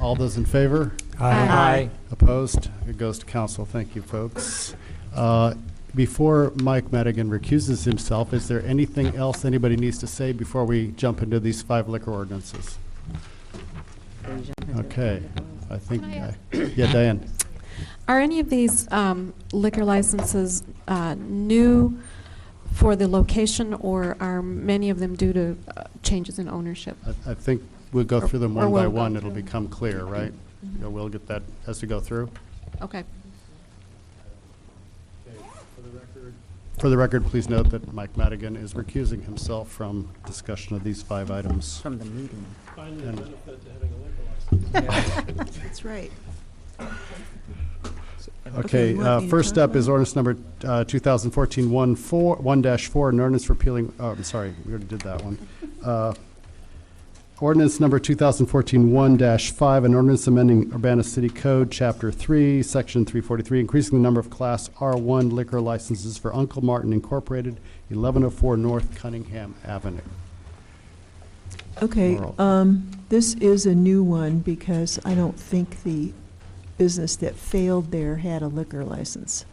All those in favor? Aye. Opposed? It goes to council. Thank you, folks. Uh, Before Mike Madigan recuses himself, is there anything else anybody needs to say before we jump into these five liquor ordinances? Okay, I think, Can I- I- yeah, Diane? Are any of these um, liquor licenses uh, new for the location, or are many of them due to uh, changes in ownership? I- I think we'll go through them Or- or one by we'll go one. It'll through. become clear, right? Mhm. Yeah, We'll get that as we go through. Okay. For the record, please note that Mike Madigan is recusing himself from discussion of these five items. From the meeting. And That's right. Okay, what uh, are you first talking up is about? ordinance number uh, 2014-1-4, 1-4, an ordinance repealing, oh, I'm sorry, we already did that one. Uh, Ordinance number 2014-1-5, an ordinance amending Urbana City Code, Chapter 3, Section 343, increasing the number of Class R1 liquor licenses for Uncle Martin Incorporated, 1104 North Cunningham Avenue. Okay, Laurel. um, this is a new one because I don't think the business that failed there had a liquor license.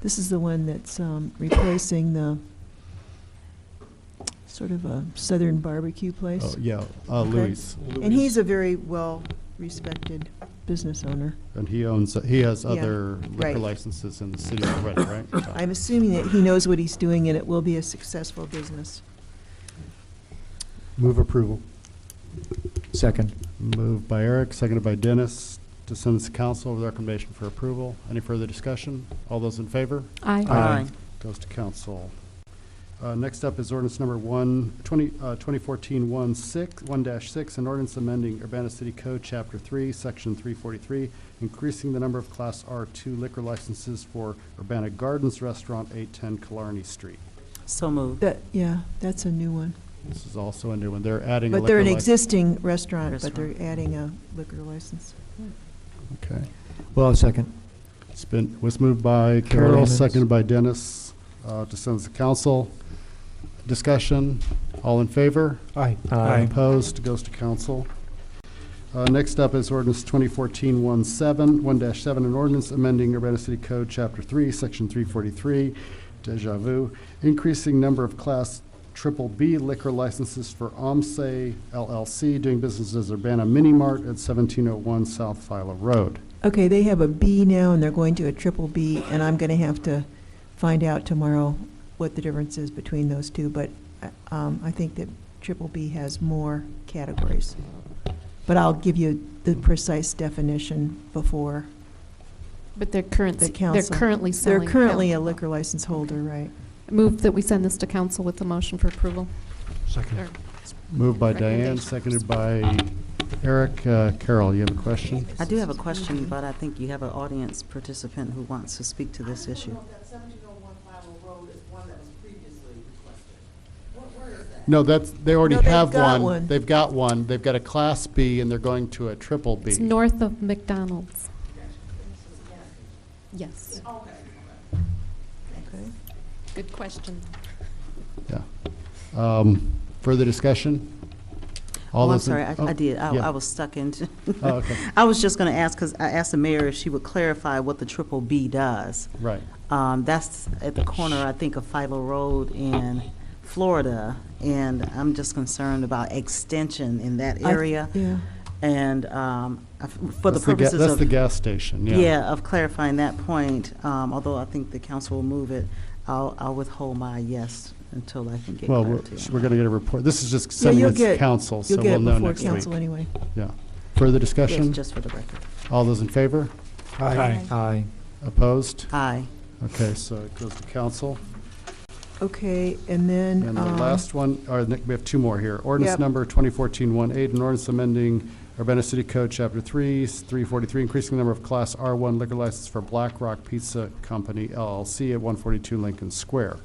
This is the one that's, um, replacing the sort of a southern barbecue Oh, place. yeah, uh, Okay. Louis, And he's a very well-respected business owner. and he owns, he has Yeah, other liquor right. licenses in the city already, right? Tom? I'm assuming that he knows what he's doing and it will be a successful business. Move approval. Second. Moved by Eric, seconded by Dennis, to send this to council with recommendation for approval. Any further discussion? All those in favor? Aye. Aye. Goes to council. Uh, Next up is ordinance number one, 20 uh, 2014-1-6, 1-6, an ordinance amending Urbana City Code, Chapter 3, Section 343, increasing the number of Class R2 liquor licenses for Urbana Gardens Restaurant, 810 Killarney Street. So moved. That, yeah, that's a new one. This is also a new one. They're adding a But they're liquor an license. existing restaurant, but they're Restaurant. adding a liquor license. Okay. Well, second. It's been, was moved by Carol, Carol. seconded by Dennis, uh, to send to council. Discussion, all in favor? Aye. Opposed, goes to council. Uh, Next up is ordinance 2014-17, 1-7, an ordinance amending Urbana City Code, Chapter 3, Section 343, deja vu, increasing number of Class Triple B liquor licenses for OMSE LLC, doing business as Urbana Mini Mart at 1701 South Philo Road. Okay, they have a B now, and they're going to a triple B, and I'm going to have to find out tomorrow what the difference is between those two, but uh, um, I think that triple B has more categories. But I'll give you the precise definition before. But they're current, The they're council. currently They're selling. currently a liquor license holder, right? Move that we send this to council with a motion for approval. Second. Or- Moved by Diane, Recommendation. seconded by Eric. Uh, Carol, you have a question? I do have a question, but I think you have an audience participant who wants to speak to this issue. That seventeen oh one Bible Road is one that was previously requested. Where, where is that? No, that's, they already No, they've have got one. one. They've got one. They've got a Class B, and they're going to a Triple It's B. north of McDonald's. Yes. Okay. Good question. Yeah. Um, Further discussion? All Oh, I'm those in- sorry, I oh, I did. I yeah. I was stuck into. Oh, okay. I was just going to ask, because I asked the mayor if she would clarify what the triple B does. Right. Um, That's at the corner, I think, of Philo Road in Florida, and I'm just concerned about extension in that I- area. Yeah. And um, I- for the That's ga- purposes of. That's the gas station, yeah. Yeah, of clarifying that point, um, although I think the council will move it, I'll, I'll withhold my yes until I can get Well, we're clarity. on we're that. going to get a report. This is just Yeah, sending you'll it to get, council, so you'll get we'll it know before next week. council anyway. Yeah. Further Yes, discussion? just for the record. All those in favor? Aye. Aye. Opposed? Aye. Okay, so it goes to council. Okay, and then. And the um, last one, or the- we have two more here. Ordinance Yep. number 2014-18, an ordinance amending Urbana City Code, Chapter 3, s- 343, increasing the number of Class R1 liquor license for Black Rock Pizza Company LLC at 142 Lincoln Square.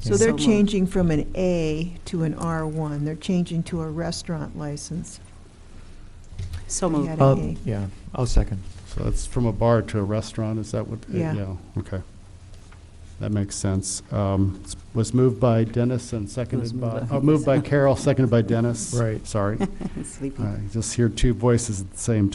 So they're So moved. changing from an A to an R1. They're changing to a restaurant license. So They moved. had Uh, an A. Yeah, I'll second. So that's from a bar to a restaurant, is that what? uh, Yeah. Okay. That makes sense. Um, s- Was moved by Dennis and seconded moved by, by- oh, moved by Carol, seconded by Dennis. Right. Sorry. Sleepy. I just hear two voices at the same time.